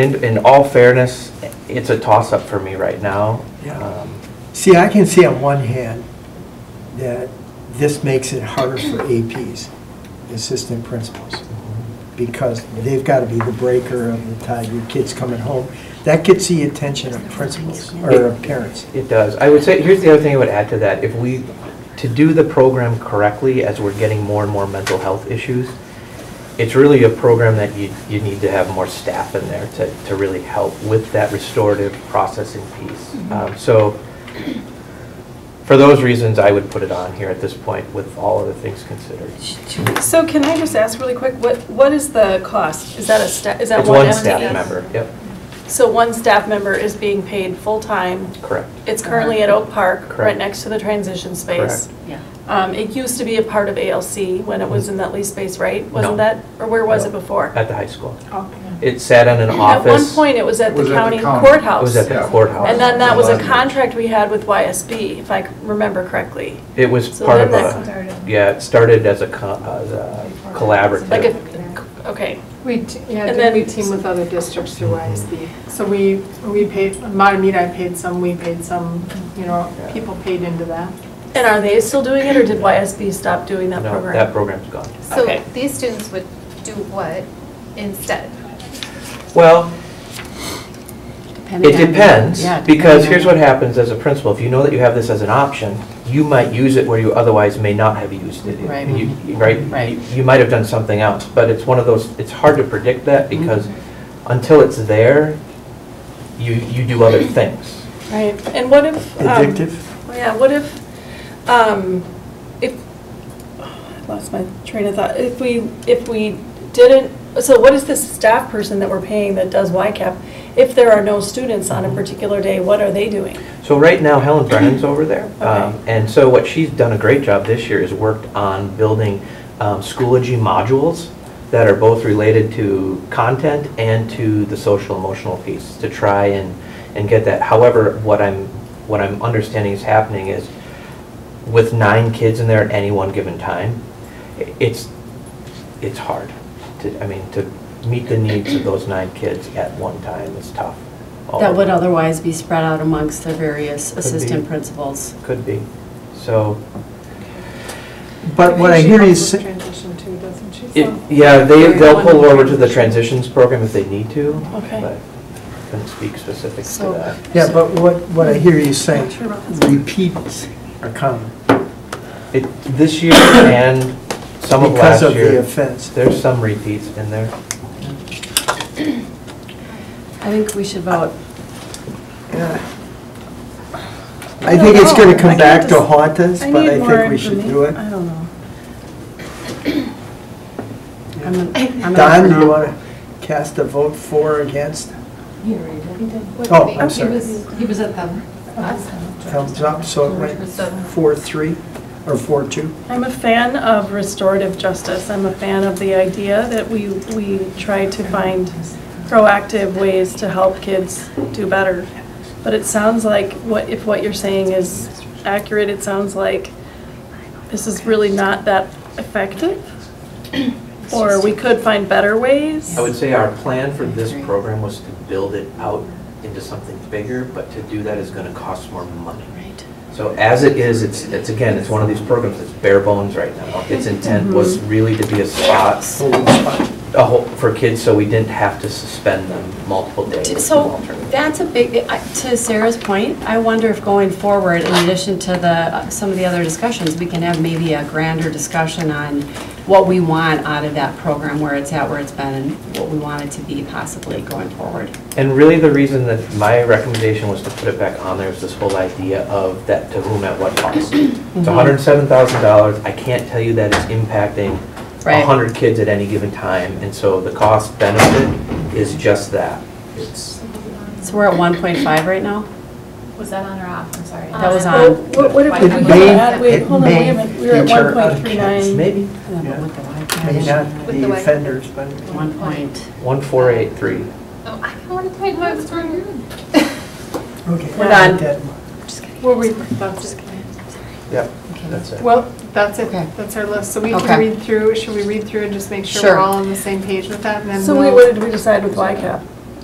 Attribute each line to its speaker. Speaker 1: In, in all fairness, it's a toss-up for me right now.
Speaker 2: Yeah.
Speaker 1: Um,
Speaker 2: See, I can see on one hand that this makes it harder for APs, assistant principals, because they've got to be the breaker of the tide, your kid's coming home. That gets the attention of principals or of parents.
Speaker 1: It does. I would say, here's the other thing I would add to that. If we, to do the program correctly, as we're getting more and more mental health issues, it's really a program that you, you need to have more staff in there to, to really help with that restorative processing piece. Um, So for those reasons, I would put it on here at this point with all other things considered.
Speaker 3: So can I just ask really quick, what, what is the cost? Is that a, sta- is that
Speaker 1: It's
Speaker 3: one
Speaker 1: one
Speaker 3: FTE?
Speaker 1: staff member. Yep,
Speaker 3: So one staff member is being paid full-time.
Speaker 1: correct.
Speaker 3: It's currently at Oak Park, right
Speaker 1: Correct.
Speaker 3: next to the transition space.
Speaker 1: Correct. Mm-hmm.
Speaker 4: Yeah.
Speaker 3: Um, It used to be a part of ALC when it was in that lease space, right?
Speaker 1: No.
Speaker 3: Wasn't that, or where was it before?
Speaker 1: At the high school.
Speaker 3: Oh,
Speaker 1: It sat in an
Speaker 3: At one
Speaker 1: office.
Speaker 3: point, it was at the
Speaker 5: Was at the
Speaker 3: county
Speaker 5: county.
Speaker 1: It
Speaker 3: courthouse.
Speaker 1: was at the
Speaker 5: Yeah.
Speaker 1: courthouse.
Speaker 3: And then that was a
Speaker 5: Wasn't it?
Speaker 3: contract we had with YSB, if I c- remember correctly.
Speaker 1: It was
Speaker 3: So
Speaker 1: part of
Speaker 3: then
Speaker 1: a, yeah, it started as a co- as a collaborative.
Speaker 3: Like a, okay.
Speaker 6: We, t- yeah,
Speaker 3: And
Speaker 6: did we
Speaker 3: then-
Speaker 6: team with other districts through ISD? So we, we paid, Matamita paid some, we paid some, you know,
Speaker 1: Yeah.
Speaker 6: people paid into that.
Speaker 3: And are they still doing it, or did YSB stop doing that
Speaker 1: No,
Speaker 3: program?
Speaker 1: that program's gone.
Speaker 3: Okay.
Speaker 7: So these students would do what instead?
Speaker 1: Well, it
Speaker 4: on-
Speaker 1: depends,
Speaker 4: yeah,
Speaker 1: because
Speaker 4: depending
Speaker 1: here's
Speaker 4: on-
Speaker 1: what happens as a principal. If you know that you have this as an option, you might use it where you otherwise may not have used it.
Speaker 4: Right.
Speaker 1: You- you- Right?
Speaker 4: Right.
Speaker 1: You- You might have done something else, but it's one of those, it's hard to predict that
Speaker 4: Mm-hmm.
Speaker 1: because until it's there, you, you do other things.
Speaker 3: Right, and what if? um,
Speaker 2: Addictive?
Speaker 3: Yeah, what if, um, if, I lost my train of thought, if we, if we didn't, so what is this staff person that we're paying that does YCAP? If there are no students on a particular day, what are they doing?
Speaker 1: So right now Helen Brennan's over there. Um,
Speaker 3: Okay.
Speaker 1: And so what she's done a great job this year is worked on building um, Schoology modules that are both related to content and to the social emotional piece to try and, and get that. However, what I'm, what I'm understanding is happening is with nine kids in there at any one given time, i- it's, it's hard to, I mean, to meet the needs of those nine kids at one time is tough.
Speaker 4: That would otherwise be spread out amongst the various
Speaker 1: be.
Speaker 4: assistant principals.
Speaker 1: Could be. So,
Speaker 2: But what I hear you
Speaker 6: She
Speaker 2: say,
Speaker 6: helps with transition too, doesn't she?
Speaker 1: it-
Speaker 6: So-
Speaker 1: yeah, they,
Speaker 4: Very
Speaker 1: they'll pull
Speaker 4: wonderful.
Speaker 1: over to the transitions program if they need to.
Speaker 3: Okay.
Speaker 1: but Couldn't speak specifics to
Speaker 4: So-
Speaker 1: that.
Speaker 2: yeah, but what, what I hear you saying, repeats are common
Speaker 1: It, this year and some of last
Speaker 2: because of the
Speaker 1: year,
Speaker 2: offense.
Speaker 1: there's some repeats in there.
Speaker 4: I think we should vote.
Speaker 2: Uh, Yeah. I think it's going to come back to haunt us,
Speaker 3: I
Speaker 2: but
Speaker 3: need
Speaker 2: I
Speaker 3: more
Speaker 2: think we should do it.
Speaker 3: I don't know.
Speaker 4: I'm an- I'm an
Speaker 2: Don, do
Speaker 4: affirmative.
Speaker 2: you want to cast a vote for or against?
Speaker 8: He already did. He did.
Speaker 7: Would
Speaker 2: Oh,
Speaker 7: it be-
Speaker 2: I'm sorry.
Speaker 8: He was, he was at them.
Speaker 2: Thumbs up, so it went four, three, or four, two?
Speaker 3: I'm a fan of restorative justice. I'm a fan of the idea that we, we try to find proactive ways to help kids do better. But it sounds like, what, if what you're saying is accurate, it sounds like this is really not that effective? Or we could find better ways?
Speaker 1: I would say our plan for this program was to build it out into something bigger, but to do that is gonna cost more money.
Speaker 4: Right.
Speaker 1: So as it is, it's, it's again, it's one of these programs that's bare bones right now. Its intent was
Speaker 4: Mm-hmm.
Speaker 1: really to be a spot a whole, for kids, so we didn't have to suspend them multiple days. with
Speaker 4: So
Speaker 1: alternate.
Speaker 4: that's a big, I- to Sarah's point, I wonder if going forward, in addition to the, some of the other discussions, we can have maybe a grander discussion on what we want out of that program, where it's at, where it's been, and what we want it to be possibly going forward.
Speaker 1: And really, the reason that my recommendation was to put it back on there is this whole idea of that to whom at what cost. It's hundred and seven thousand dollars, I can't tell you that it's impacting
Speaker 4: Right.
Speaker 1: hundred kids at any given time, and so the cost benefit is just that. It's,
Speaker 4: So we're at 1.5 right now?
Speaker 8: Was that on or off? I'm sorry.
Speaker 4: That
Speaker 7: Uh,
Speaker 4: was
Speaker 3: Well,
Speaker 4: on.
Speaker 3: What what if we
Speaker 8: It
Speaker 3: could
Speaker 8: may-
Speaker 3: add, wait,
Speaker 2: it
Speaker 3: hold on, wait
Speaker 2: may
Speaker 3: a minute, we were at
Speaker 2: deter other
Speaker 3: 1.39.
Speaker 1: maybe,
Speaker 4: Yeah, but with the Wi-Fi,
Speaker 2: May not
Speaker 7: With
Speaker 2: be
Speaker 7: the way-
Speaker 2: offenders, but
Speaker 4: One point.
Speaker 1: one four eight three.
Speaker 7: Oh, I kind of want to play Dogs for
Speaker 2: okay.
Speaker 4: We're done.
Speaker 2: Dead.
Speaker 6: Well, we, that's,
Speaker 1: Yep, that's it.
Speaker 6: well, that's it,
Speaker 4: Okay.
Speaker 6: that's our list. So we
Speaker 4: Okay.
Speaker 6: can read through, should we read through and just make sure
Speaker 4: Sure.
Speaker 6: we're all on the same page with that? and then
Speaker 3: So we,
Speaker 6: we'll-
Speaker 3: what did we decide with YCAP?